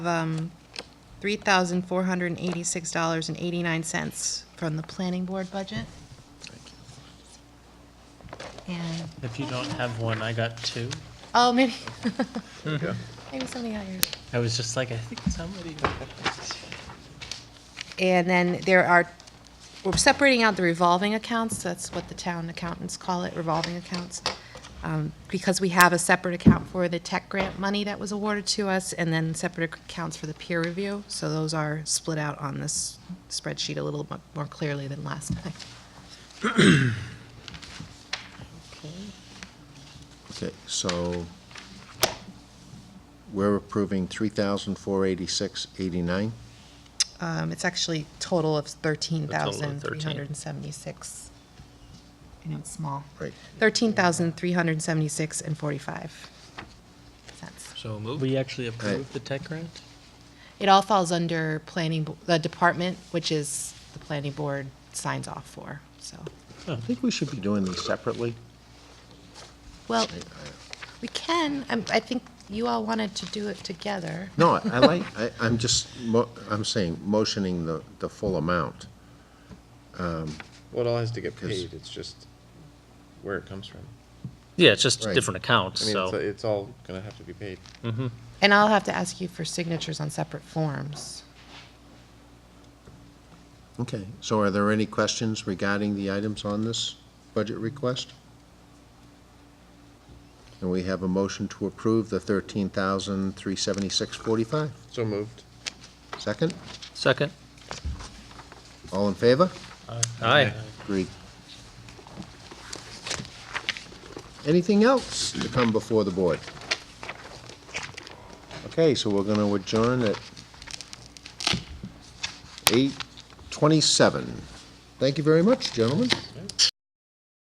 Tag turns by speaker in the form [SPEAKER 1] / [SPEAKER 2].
[SPEAKER 1] um, $3,486.89 from the planning board budget. And,
[SPEAKER 2] If you don't have one, I got two.
[SPEAKER 1] oh, maybe,
[SPEAKER 3] Yeah.
[SPEAKER 1] maybe somebody got yours.
[SPEAKER 2] I was just like, I think somebody.
[SPEAKER 1] And then there are, we're separating out the revolving accounts, that's what the town accountants call it, revolving accounts. Um, Because we have a separate account for the tech grant money that was awarded to us, and then separate accounts for the peer review. So those are split out on this spreadsheet a little mu- more clearly than last time.
[SPEAKER 3] Okay, so we're approving three thousand four eighty-six eighty-nine.
[SPEAKER 1] Um, It's actually total of thirteen thousand three
[SPEAKER 2] 13.
[SPEAKER 1] hundred and seventy-six. I know it's small.
[SPEAKER 3] Right.
[SPEAKER 1] Thirteen thousand three hundred and seventy-six and forty-five cents.
[SPEAKER 4] So moved.
[SPEAKER 2] We actually approved the tech grant?
[SPEAKER 1] It all falls under planning, bo- the department, which is the planning board signs off for, so.
[SPEAKER 3] I think we should be doing these separately.
[SPEAKER 1] Well, we can, I'm- I think you all wanted to do it together.
[SPEAKER 3] No, I I like, I, I'm just, mo- I'm saying, motioning the, the full amount.
[SPEAKER 5] Well, it all has to get
[SPEAKER 3] 'Cause-
[SPEAKER 5] paid, it's just where it comes from.
[SPEAKER 4] Yeah, it's just
[SPEAKER 3] Right.
[SPEAKER 4] different accounts,
[SPEAKER 5] I mean, it's,
[SPEAKER 4] so.
[SPEAKER 5] it's all gonna have to be paid.
[SPEAKER 1] And I'll have to ask you for signatures on separate forms.
[SPEAKER 3] Okay, so are there any questions regarding the items on this budget request? And we have a motion to approve the thirteen thousand three seventy-six forty-five.
[SPEAKER 5] So moved.
[SPEAKER 3] Second,
[SPEAKER 4] Second?
[SPEAKER 3] all in favor?
[SPEAKER 4] Aye.
[SPEAKER 3] Agreed. Anything else to come before the board? Okay, so we're gonna adjourn at eight twenty-seven. Thank you very much, gentlemen.